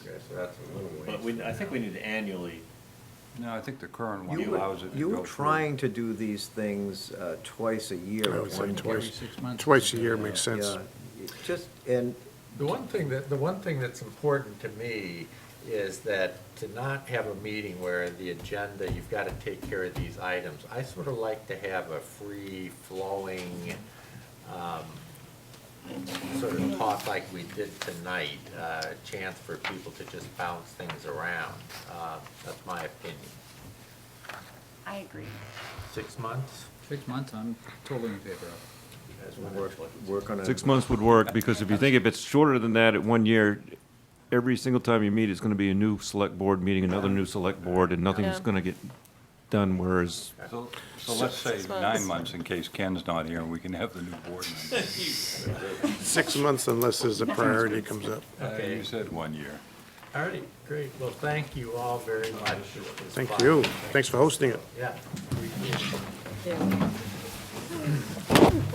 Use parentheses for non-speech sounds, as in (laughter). That's a little ways. But we, I think we need to annually, No, I think the current one You allows it to were, go you were through. trying to do these things uh, twice a year. I at would say one point. twice, six months. twice a year makes sense. Yeah, it Just, and The one thing that, The one thing that's important to me is that to not have a meeting where the agenda, you've got to take care of these items. I sort of like to have a free-flowing, um, sort of talk like we did tonight, uh, chance for people to just bounce things around. Uh, That's my opinion. I agree. Six months? six months, I'm totally in favor of. as we work, work on a. Six months would work, because if you think if it's shorter than that at one year, every single time you meet, it's gonna be a new select board meeting, another new select board, and nothing's Yeah. gonna get done, whereas So, so let's say Six nine months. months in case Ken's not here, and we can have the new board (laughs) member. Six months unless there's a priority comes up. Uh, You said one year. All right, great. Well, thank you all very much. It was Thank fun. you. Thanks for hosting it. Yeah. appreciate it. Yeah.